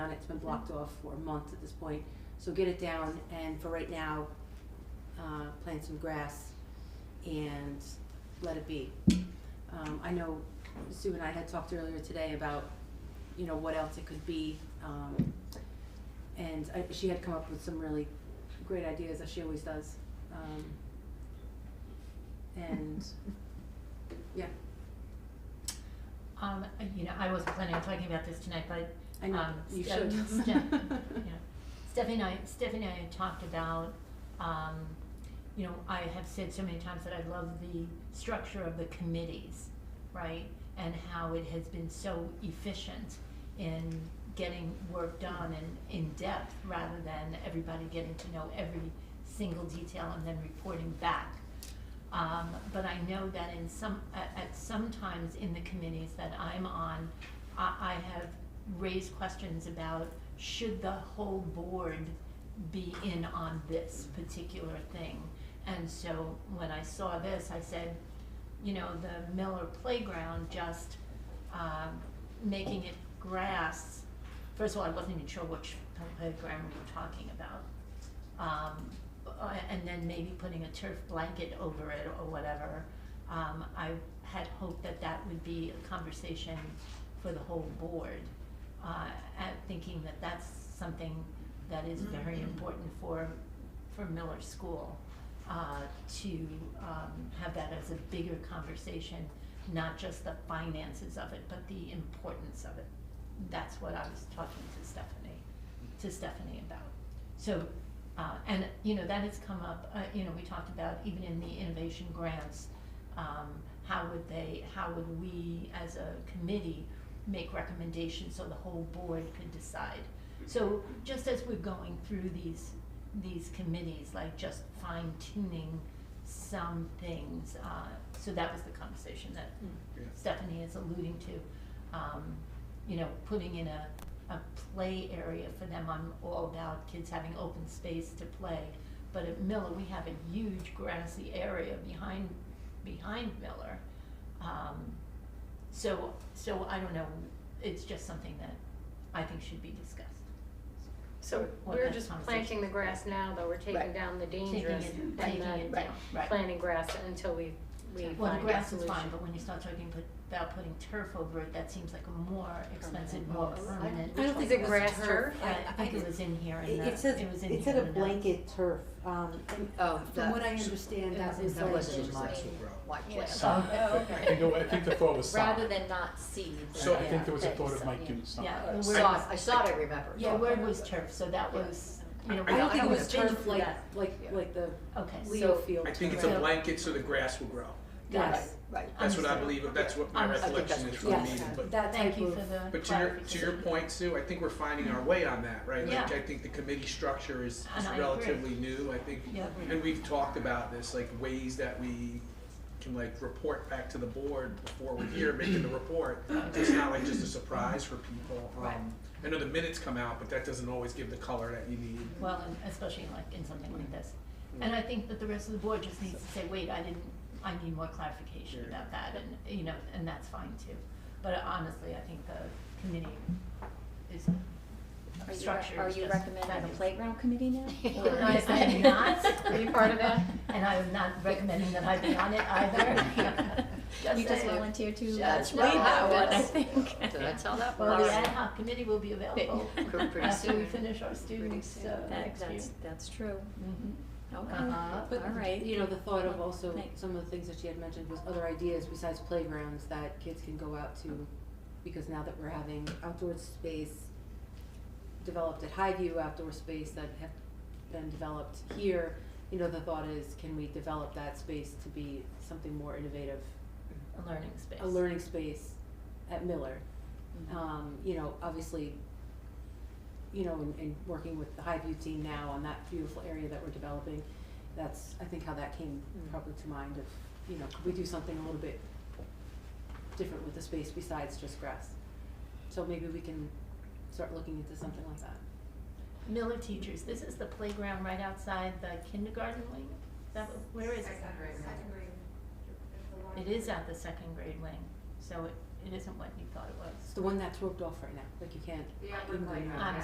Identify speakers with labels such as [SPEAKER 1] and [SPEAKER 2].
[SPEAKER 1] it's been blocked off for a month at this point. So get it down and for right now, uh, plant some grass and let it be. Um, I know Sue and I had talked earlier today about, you know, what else it could be. Um, and I, she had come up with some really great ideas, as she always does. Um, and, yeah,
[SPEAKER 2] Um, you know, I wasn't planning on talking about this tonight, but,
[SPEAKER 1] I know,
[SPEAKER 2] um,
[SPEAKER 1] you
[SPEAKER 2] Steph-
[SPEAKER 1] should.
[SPEAKER 2] Steph- yeah. Stephanie and I, Stephanie and I had talked about, um, you know, I have said so many times that I love the structure of the committees, right? And how it has been so efficient in getting work done and in depth rather than everybody getting to know every single detail and then reporting back. Um, but I know that in some, at, at some times in the committees that I'm on, I, I have raised questions about should the whole board be in on this particular thing? And so when I saw this, I said, you know, the Miller Playground just, um, making it grass. First of all, I wasn't even sure which playground we were talking about. Um, uh, and then maybe putting a turf blanket over it or whatever. Um, I had hoped that that would be a conversation for the whole board. Uh, at thinking that that's something that is very important for, for Miller School. Uh, to, um, have that as a bigger conversation, not just the finances of it, but the importance of it. That's what I was talking to Stephanie, to Stephanie about. So, uh, and, you know, that has come up, uh, you know, we talked about even in the innovation grants, um, how would they, how would we as a committee make recommendations so the whole board could decide? So just as we're going through these, these committees, like just fine tuning some things, uh, so that was the conversation that Stephanie is alluding to, um, you know, putting in a, a play area for them, I'm all about kids having open space to play. But at Miller, we have a huge grassy area behind, behind Miller. Um, so, so I don't know, it's just something that I think should be discussed.
[SPEAKER 3] So
[SPEAKER 2] What
[SPEAKER 3] we're
[SPEAKER 2] that
[SPEAKER 3] just
[SPEAKER 2] conversation-
[SPEAKER 3] planting the grass now, though, we're taking
[SPEAKER 4] Right.
[SPEAKER 3] down the
[SPEAKER 2] Taking
[SPEAKER 3] dangerous
[SPEAKER 2] it,
[SPEAKER 3] and
[SPEAKER 2] taking
[SPEAKER 3] then
[SPEAKER 2] it down, right.
[SPEAKER 3] planting grass until we, we find a solution.
[SPEAKER 2] Well, the grass is fine, but when you start talking put- about putting turf over it, that seems like a more expensive, more permanent.
[SPEAKER 1] I don't think
[SPEAKER 3] Is it
[SPEAKER 1] it was
[SPEAKER 3] grass
[SPEAKER 1] turf.
[SPEAKER 3] turf?
[SPEAKER 2] I I think it was in here and
[SPEAKER 4] It-
[SPEAKER 2] that,
[SPEAKER 4] It says,
[SPEAKER 2] it was in here
[SPEAKER 4] it said a
[SPEAKER 2] and that.
[SPEAKER 4] blanket turf, um, and
[SPEAKER 5] Oh,
[SPEAKER 1] From
[SPEAKER 5] the-
[SPEAKER 1] what I understand, that
[SPEAKER 4] That
[SPEAKER 1] is
[SPEAKER 5] That
[SPEAKER 1] like,
[SPEAKER 4] was
[SPEAKER 5] wasn't my, my plan.
[SPEAKER 6] Sod.
[SPEAKER 5] Oh,
[SPEAKER 6] I think, I think the thought was sod.
[SPEAKER 5] Rather than not seeds.
[SPEAKER 6] So I think there was a
[SPEAKER 5] Yeah.
[SPEAKER 6] thought of Mike doing sod.
[SPEAKER 2] Yeah,
[SPEAKER 5] Uh,
[SPEAKER 2] the word
[SPEAKER 5] Sod, I
[SPEAKER 2] was-
[SPEAKER 5] sod, I remember.
[SPEAKER 2] Yeah, word was turf, so that was, you know.
[SPEAKER 1] I don't
[SPEAKER 5] I
[SPEAKER 1] think it
[SPEAKER 5] don't
[SPEAKER 1] was
[SPEAKER 2] have been
[SPEAKER 1] turf
[SPEAKER 2] through
[SPEAKER 1] like,
[SPEAKER 2] that.
[SPEAKER 1] like,
[SPEAKER 5] Yeah.
[SPEAKER 1] like the
[SPEAKER 2] Okay,
[SPEAKER 1] Leo
[SPEAKER 2] so,
[SPEAKER 1] field.
[SPEAKER 7] I think it's
[SPEAKER 1] turf.
[SPEAKER 7] a blanket so the grass will grow.
[SPEAKER 5] Right,
[SPEAKER 2] yes.
[SPEAKER 5] right.
[SPEAKER 7] That's what I
[SPEAKER 2] Understood.
[SPEAKER 7] believe, that's what my
[SPEAKER 2] Um, I think
[SPEAKER 7] recollection
[SPEAKER 5] that's
[SPEAKER 7] is from
[SPEAKER 5] what
[SPEAKER 7] the
[SPEAKER 5] you
[SPEAKER 1] Yes,
[SPEAKER 7] meeting,
[SPEAKER 5] said.
[SPEAKER 7] but,
[SPEAKER 1] that
[SPEAKER 2] Thank
[SPEAKER 1] type
[SPEAKER 2] you
[SPEAKER 1] of,
[SPEAKER 2] for the
[SPEAKER 7] but to your, to your
[SPEAKER 2] clarification.
[SPEAKER 7] point, Sue, I think we're finding our way on that, right? Like,
[SPEAKER 2] Yeah.
[SPEAKER 7] I think the committee structure is
[SPEAKER 2] And
[SPEAKER 7] is
[SPEAKER 2] I agree.
[SPEAKER 7] relatively new, I think,
[SPEAKER 2] Yeah.
[SPEAKER 7] and we've talked about this, like ways that we can like report back to the board before we're here making the report. So It's not like just a surprise for people. Um,
[SPEAKER 2] Right.
[SPEAKER 7] I know the minutes come out, but that doesn't always give the color that you need.
[SPEAKER 2] Well, and especially like in something like this. And I think that the rest of the board just needs to say, wait, I didn't, I need more clarification
[SPEAKER 7] Yeah.
[SPEAKER 2] about that, and, you know, and that's fine too. But honestly, I think the committee is
[SPEAKER 5] Are you,
[SPEAKER 2] structured.
[SPEAKER 5] re- are you recommending the playground committee now? Or-
[SPEAKER 2] I, I am not.
[SPEAKER 5] Are you part of that?
[SPEAKER 2] And I am not recommending that I be on it either.
[SPEAKER 5] You just
[SPEAKER 2] saying.
[SPEAKER 5] volunteered to.
[SPEAKER 2] Just
[SPEAKER 5] No,
[SPEAKER 2] wait uh, that one, I
[SPEAKER 5] that's-
[SPEAKER 4] think.
[SPEAKER 5] Did I tell that?
[SPEAKER 2] Well,
[SPEAKER 5] one?
[SPEAKER 2] the ad hoc committee will be available
[SPEAKER 5] Pretty- pretty
[SPEAKER 2] after we
[SPEAKER 5] soon.
[SPEAKER 2] finish our
[SPEAKER 5] Pretty
[SPEAKER 2] students,
[SPEAKER 5] soon.
[SPEAKER 2] uh,
[SPEAKER 5] That,
[SPEAKER 2] next year.
[SPEAKER 5] that's, that's true.
[SPEAKER 2] Mhm.
[SPEAKER 5] Okay,
[SPEAKER 2] Uh-huh.
[SPEAKER 5] all
[SPEAKER 1] Uh, but,
[SPEAKER 5] right.
[SPEAKER 1] you know, the thought of also,
[SPEAKER 5] Thanks.
[SPEAKER 1] some of the things that she had mentioned was other ideas besides playgrounds that kids can go out to, because now that we're having outdoor space developed at Highview, outdoor space that have been developed here, you know, the thought is, can we develop that space to be something more innovative
[SPEAKER 2] A learning space.
[SPEAKER 1] a learning space at Miller.
[SPEAKER 5] Mhm.
[SPEAKER 1] Um, you know, obviously, you know, in, in working with the Highview team now on that beautiful area that we're developing, that's, I think how that came probably to mind of, you know, could we do something a little bit different with the space besides just grass? So maybe we can start looking into something like that.
[SPEAKER 2] Miller teachers, this is the playground right outside the kindergarten wing? Is that, what- where is it?
[SPEAKER 8] Second grade. Second grade. The one-
[SPEAKER 2] It is at the second grade wing, so it, it isn't what you thought it was.
[SPEAKER 1] It's the one that's roped off right now, like you can't.
[SPEAKER 8] The
[SPEAKER 1] even
[SPEAKER 8] upper
[SPEAKER 1] go
[SPEAKER 8] playground.
[SPEAKER 1] around.
[SPEAKER 2] I'm